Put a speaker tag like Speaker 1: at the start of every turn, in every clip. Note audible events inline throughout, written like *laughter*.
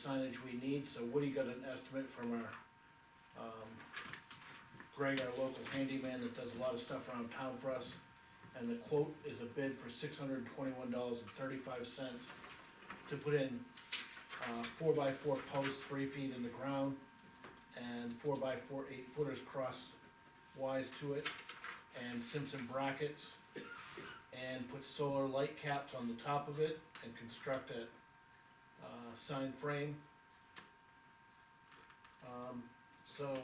Speaker 1: signage we need, so Woody got an estimate from our, um, Greg, our local handyman that does a lot of stuff around town for us. And the quote is a bid for six hundred and twenty-one dollars and thirty-five cents to put in, uh, four by four posts, three feet in the ground, and four by four, eight footers crosswise to it, and Simpson brackets, and put solar light caps on the top of it, and construct a, uh, sign frame. Um, so,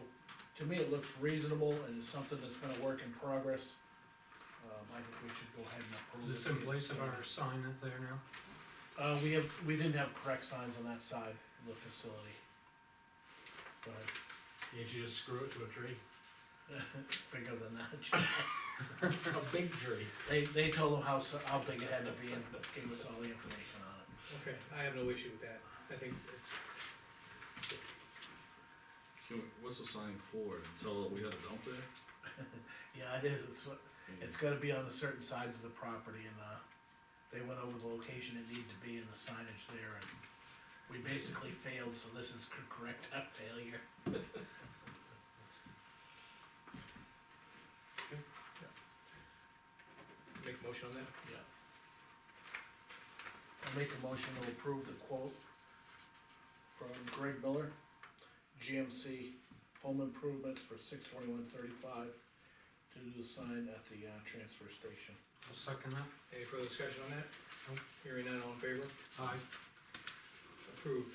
Speaker 1: to me, it looks reasonable, and it's something that's been a work in progress. Um, I think we should go ahead and approve
Speaker 2: Is
Speaker 1: it.
Speaker 2: this in place of our sign up there now?
Speaker 1: Uh, we have, we didn't have correct signs on that side of the facility. But
Speaker 3: Can't you just screw it to a tree?
Speaker 1: it's bigger than that.
Speaker 3: *laughs*
Speaker 1: *laughs*
Speaker 3: A big tree.
Speaker 1: They, they told them how, s- how big it had to be and gave us all the information on it.
Speaker 4: Okay, I have no issue with that, I think it's,
Speaker 5: Can we, what's the sign for, until we had a dump there?
Speaker 1: Yeah, it is, it's, what- it's gotta be on the certain sides of the property and, uh, they went over the location it needed to be and the signage there and we basically failed, so this is to correct *laughs* that failure.
Speaker 4: make a motion on that,
Speaker 1: Yeah. I make a motion to approve the quote from Greg Miller, GMC Home Improvements for six twenty-one thirty-five to do the sign at the, uh, transfer station.
Speaker 2: I'll second that.
Speaker 4: any further discussion on that?
Speaker 2: Nope.
Speaker 4: Hearing none, all in favor,
Speaker 2: Aye.
Speaker 4: approved.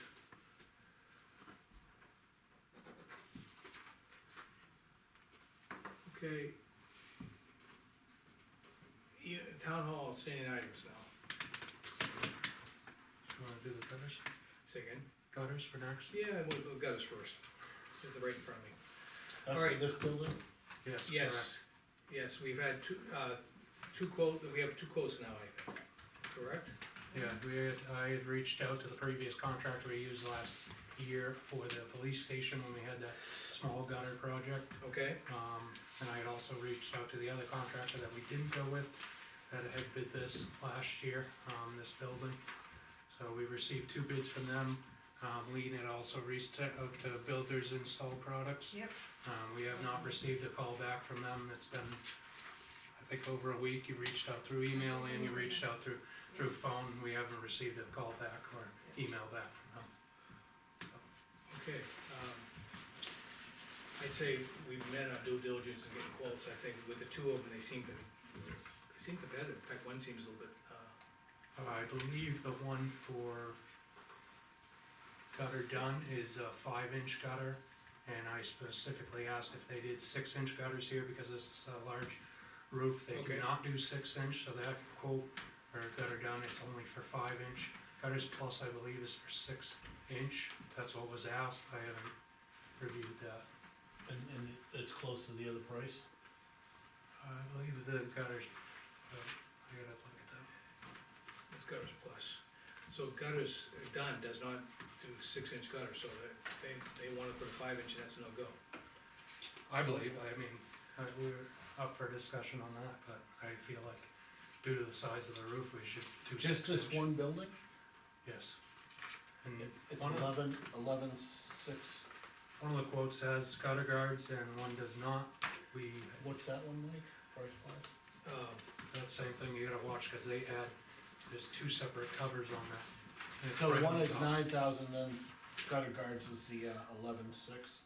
Speaker 4: Okay. Yeah, town hall standing items now,
Speaker 2: Do you wanna do the gutters?
Speaker 4: say again,
Speaker 2: Gutters for next?
Speaker 4: yeah, we'll, we'll gutters first, this is right in front of me.
Speaker 1: That's
Speaker 4: Alright.
Speaker 1: for this building?
Speaker 2: Yes.
Speaker 4: Yes, yes, we've had two, uh, two quote, we have two quotes now, I think, correct?
Speaker 2: correct. Yeah, we had, I had reached out to the previous contractor we used last year for the police station when we had that small gutter project.
Speaker 4: Okay,
Speaker 2: Um, and I had also reached out to the other contractor that we didn't go with, that had bid this last year, um, this building. So we received two bids from them, um, Lean had also reached out to Builders Install Products.
Speaker 6: Yep.
Speaker 2: Um, we have not received a call back from them, it's been, I think, over a week, you reached out through email and you reached out through, through phone, we haven't received a call back or email back from them.
Speaker 4: okay, um, I'd say we've met our due diligence in getting quotes, I think, with the two of them, they seem to, they seem competitive, in fact, one seems a little bit, uh,
Speaker 2: Uh, I believe the one for gutter done is a five inch gutter. And I specifically asked if they did six inch gutters here because this is a large roof, they
Speaker 4: Okay.
Speaker 2: do not do six inch, so that quote or gutter done is only for five inch. Gutters plus, I believe, is for six inch, that's what was asked, I haven't reviewed that.
Speaker 1: And, and it's close to the other price?
Speaker 2: I believe the gutters, but I gotta look at that.
Speaker 4: it's gutters plus. So gutters, done does not do six inch gutters, so they- they, they wanna put a five inch, and that's no go.
Speaker 2: I believe, I mean, uh, we're up for discussion on that, but I feel like due to the size of the roof, we should do six
Speaker 1: Just
Speaker 2: inch.
Speaker 1: this one building?
Speaker 2: Yes. And
Speaker 1: It- It's
Speaker 2: One of-
Speaker 1: eleven, eleven six,
Speaker 2: one of the quotes has gutter guards and one does not, we,
Speaker 1: what's that one like, price wise?
Speaker 4: Um,
Speaker 2: that same thing you gotta watch, cause they add, there's two separate covers on that. And it's
Speaker 1: So
Speaker 2: right on
Speaker 1: one is
Speaker 2: top.
Speaker 1: nine thousand, then gutter guards was the, uh, eleven six.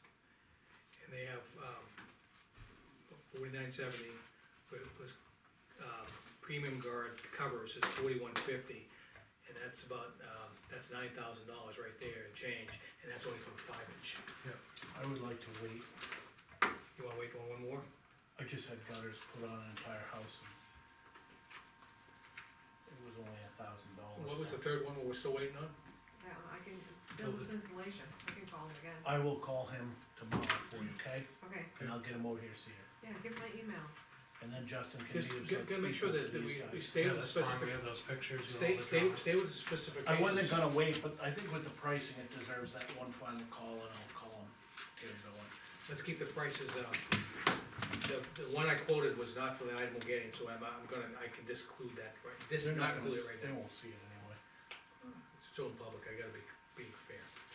Speaker 4: And they have, um, forty-nine seventy, plus, um, premium guard covers is forty-one fifty. And that's about, um, that's nine thousand dollars right there and change, and that's only for a five inch.
Speaker 1: I would like to wait
Speaker 4: You wanna wait for one more?
Speaker 1: I just had gutters put on an entire house and it was only a thousand dollars.
Speaker 4: What was the third one we're still waiting on?
Speaker 6: Yeah, I can, build this installation, I can call him again,
Speaker 1: I will call him tomorrow for you, okay?
Speaker 6: okay,
Speaker 1: And I'll get him over here, see you.
Speaker 6: yeah, give my email,
Speaker 1: And then Justin can
Speaker 4: Just,
Speaker 1: meet him. so
Speaker 4: gotta
Speaker 1: it's
Speaker 4: make sure
Speaker 1: equal
Speaker 4: that,
Speaker 1: to
Speaker 4: that
Speaker 1: these
Speaker 4: we, we
Speaker 1: guys.
Speaker 4: stay
Speaker 2: Yeah,
Speaker 4: with
Speaker 2: that's
Speaker 4: the
Speaker 2: fine, we
Speaker 4: specific,
Speaker 2: have those pictures with all
Speaker 4: stay,
Speaker 2: the
Speaker 4: stay,
Speaker 2: drawings.
Speaker 4: stay with the specifications.
Speaker 1: I wasn't gonna wait, but I think with the pricing, it deserves that one final call and I'll call him, get him going.
Speaker 4: Let's keep the prices, um, the, the one I quoted was not for the item we're getting, so I'm, I'm gonna, I can disclude that, right? This is
Speaker 1: They're
Speaker 4: not
Speaker 1: gonna
Speaker 4: included
Speaker 1: s-
Speaker 4: right now.
Speaker 1: They won't see it anyway.
Speaker 4: It's still in public, I gotta be, be fair.